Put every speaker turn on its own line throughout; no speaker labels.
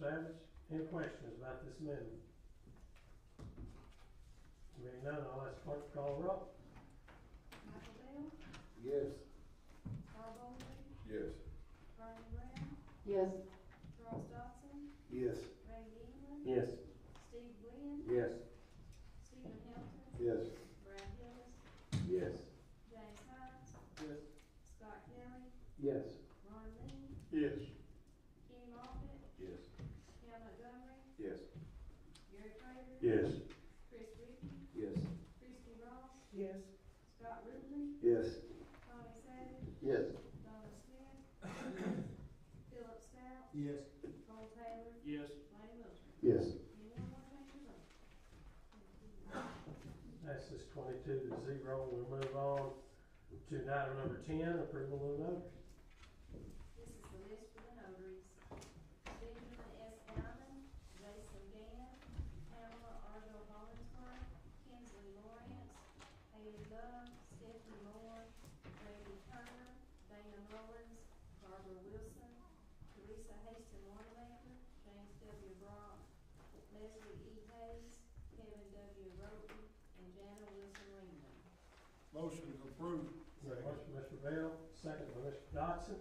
Savage, any questions about this amendment? Being none, I'll ask clerk to call the roll.
Michael Bell,
Yes.
Carl Bolden,
Yes.
Vernon Brown,
yes,
Charles Dodson,
Yes.
Randy England,
yes,
Steve Glenn,
Yes.
Stephen Hilton,
Yes.
Brad Hillis,
Yes.
James Hines,
Yes.
Scott Kelly,
Yes.
Ron Lee,
Yes.
Kenny Moffitt,
Yes.
Cam Montgomery,
Yes.
Gary Prater,
Yes.
Chris Rippey,
Yes.
Christie Ross,
yes,
Scott Ruble,
Yes.
Tommy Savage,
Yes.
Donna Smith, Philip Stout,
Yes.
Cole Taylor,
yes.
Lane Wilcher.
Yes.
Anyone want to change their vote? Thank you.
That's just twenty-two to zero, we move on to item number ten, approval of notice.
This is the list for the notaries. Stephen S. Allen, Jason Gann, Pamela Argo Hollingsworth, Kinsley Lawrence, Haley Love, Stephanie Moore, Randy Turner, Dana Rollins, Barbara Wilson, Teresa Haston Wanamaker, James W. Brock, Leslie E. Hayes, Kevin W. Roden, and Jana Wilson Ringman.
Motion approved.
Motion by Mr. Bell, second by Mr. Dodson.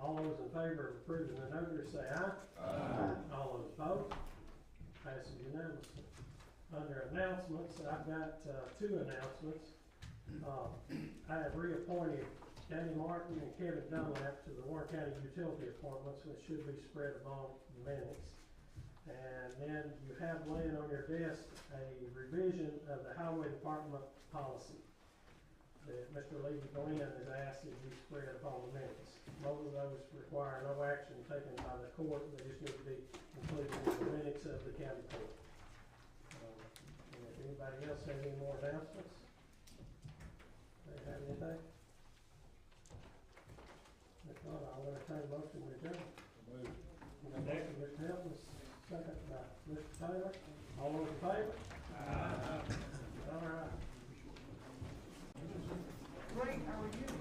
All those in favor of approving the notice, say aye. All those opposed, passes unanimously. Under announcements, I've got, uh, two announcements. Uh, I have reappointed Danny Martin and Kevin Dunlap to the Warren County Utility Appointments, which should be spread among the minutes. And then you have laying on your desk a revision of the Highway Department policy that Mr. Lee Glenn has asked that be spread upon the minutes. Both of those require no action taken by the court, they just need to be included in the minutes of the county court. Um, And if anybody else has any more announcements? They have anything? If not, I'll entertain a motion to adjourn. Motion by Mr. Hilton, second by Mr. Taylor, all those in favor? All right.
great, how are you?